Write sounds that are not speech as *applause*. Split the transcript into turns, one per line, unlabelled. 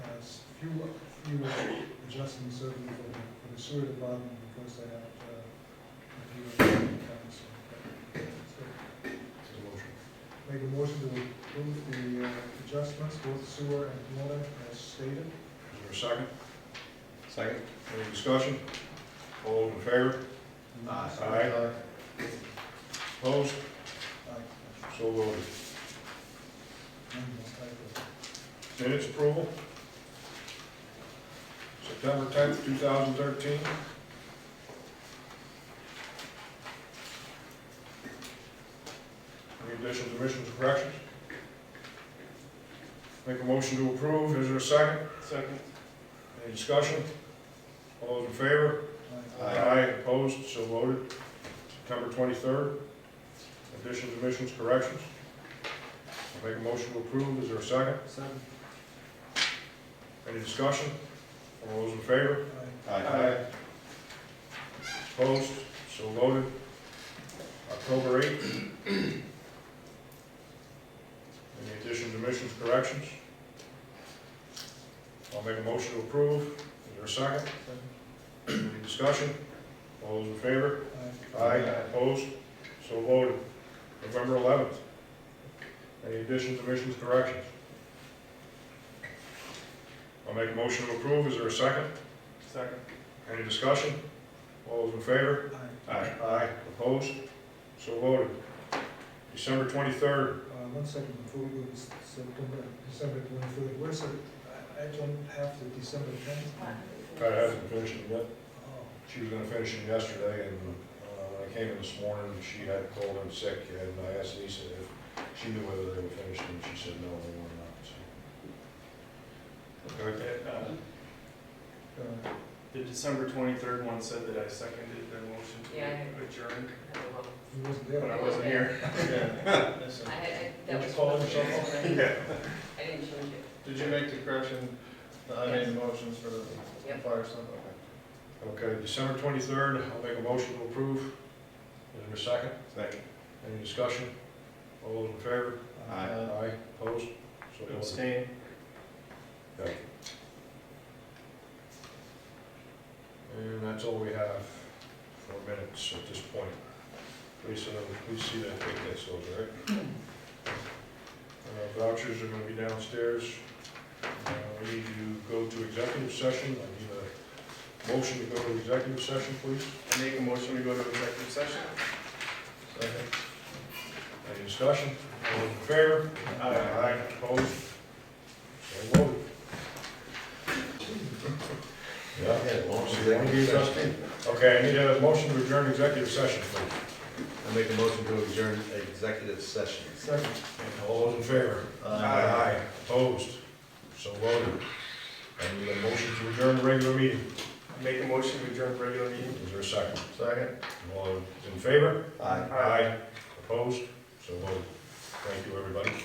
few, few adjustments certainly for the, for the sewer department because they have, uh, a few accounts. So, Make a motion to approve the uh, adjustments, both sewer and water as stated.
Is there a second?
Second?
Any discussion? All in favor?
Uh,
Aye. Opposed?
Aye.
So voted.
None of those typos.
Minutes approval? September tenth, two thousand thirteen? Any additional omissions or corrections? Make a motion to approve, is there a second?
Second.
Any discussion? All those in favor?
Aye.
Aye, opposed, so voted. September twenty-third, additions, omissions, corrections. I make a motion to approve, is there a second?
Second.
Any discussion? All those in favor?
Aye.
Uh,
Opposed, so voted. October eighth. Any additions, omissions, corrections? I'll make a motion to approve, is there a second? Any discussion? All those in favor?
Aye.
Aye, opposed, so voted. November eleventh. Any additions, omissions, corrections? I'll make a motion to approve, is there a second?
Second.
Any discussion? All those in favor?
Aye.
Aye, opposed, so voted. December twenty-third,
Uh, one second before we go to September, December twenty-third, where's the, I, I don't have the December tenth.
Pat hasn't finished it yet.
Oh,
She was gonna finish it yesterday, and uh, when I came in this morning, she had cold and sick, and I asked Lisa if she knew whether they were finished, and she said no, they were not, so.
*laughs*
Okay,
uh,
The December twenty-third one said that I seconded their motion
Yeah.
to adjourn,
he wasn't
but
there.
I wasn't here.
I had, I-
Did
that
you
was.
call him yourself? *laughs*
I didn't change it.
Did you make the correction?
I made the
motions for the
Yep.
fire stuff,
Okay, December twenty-third, I'll make a motion to approve. Is there a second?
Second.
Any discussion? All those in favor? Aye, opposed? So voted.
Uh, Abstain.
Okay. And that's all we have for minutes at this point. Lisa, please see that, take that, so, all right? Uh, Vouchers are gonna be downstairs. Uh, We need to go to executive session. I need a motion to go to executive session, please.
I make a motion to go to executive session. Second.
Any discussion? All those in favor? Aye, opposed? So voted. Okay, I need a motion to adjourn executive session, please.
I make a motion to adjourn executive session.
Second.
And all those in favor? Opposed? So voted. I need a motion to adjourn the regular meeting.
Make a motion to adjourn regular meeting.
Is there a second?
Second.
All in favor?
Aye.
Aye. Opposed? So voted. Thank you, everybody.